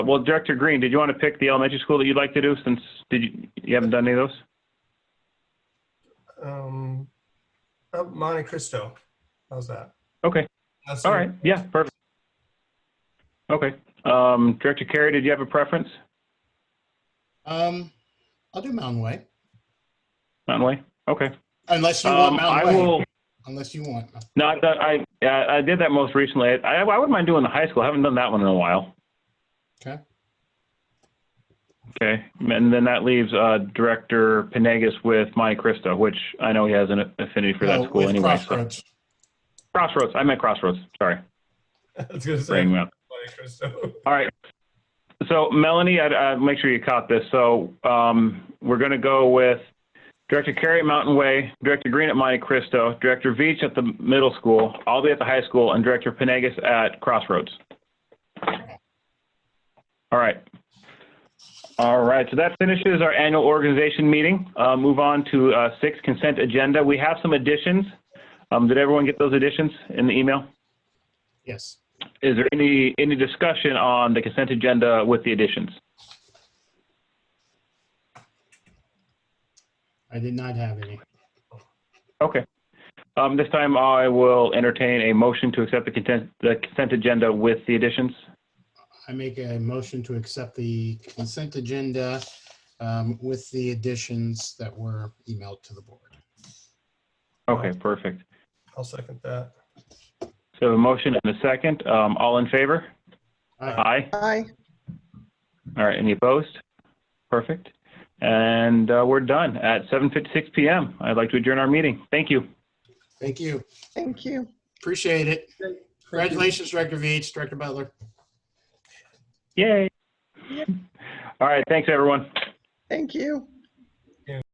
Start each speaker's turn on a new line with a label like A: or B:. A: Well, Director Green, did you want to pick the elementary school that you'd like to do since, did you, you haven't done any of those?
B: Um, uh, Monte Cristo. How's that?
A: Okay,
B: That's
A: all right, yeah, perfect. Okay, um, Director Carey, did you have a preference,
C: Um, I'll do Mountain Way,
A: Mountain Way? Okay.
C: unless you
A: Um,
C: want
A: I
C: Mountain Way.
A: will,
C: Unless you want.
A: no, I, thought- I, I I did that most recently. I, I wouldn't mind doing the high school. I haven't done that one in a while.
C: Okay.
A: Okay, and then that leaves, uh, Director Panegas with Monte Cristo, which I know he has an affinity for
C: No,
A: that school
C: Oh, with
A: anyway. so-
C: Crossroads.
A: Crossroads, I meant Crossroads, sorry,
B: I was gonna say
A: bringing
B: Monte
A: me up.
B: Cristo.
A: All right. So Melanie, I, I make sure you caught this. So um, we're going to go with Director Carey at Mountain Way, Director Green at Monte Cristo, Director Veach at the middle school, I'll be at the high school, and Director Panegas at Crossroads. All right. All right. So that finishes our annual organization meeting. Uh, move on to uh, six consent agenda. We have some additions. Um, did everyone get those additions in the email?
C: Yes.
A: Is there any, any discussion on the consent agenda with the additions?
C: I did not have any.
A: Okay. Um, this time I will entertain a motion to accept the consent, the consent agenda with the additions.
C: I make a motion to accept the consent agenda um, with the additions that were emailed to the board.
A: Okay, perfect.
B: I'll second that.
A: So a motion and a second. Um, all in favor?
C: Aye.
A: Aye.
D: Aye.
A: All right. Any opposed? Perfect. And, uh, we're done at 7:56 PM. I'd like to adjourn our meeting. Thank you.
C: Thank you.
D: Thank you.
C: Appreciate it. Congratulations, Director Veach, Director Butler.
A: Yay. All right. Thanks, everyone.
D: Thank you.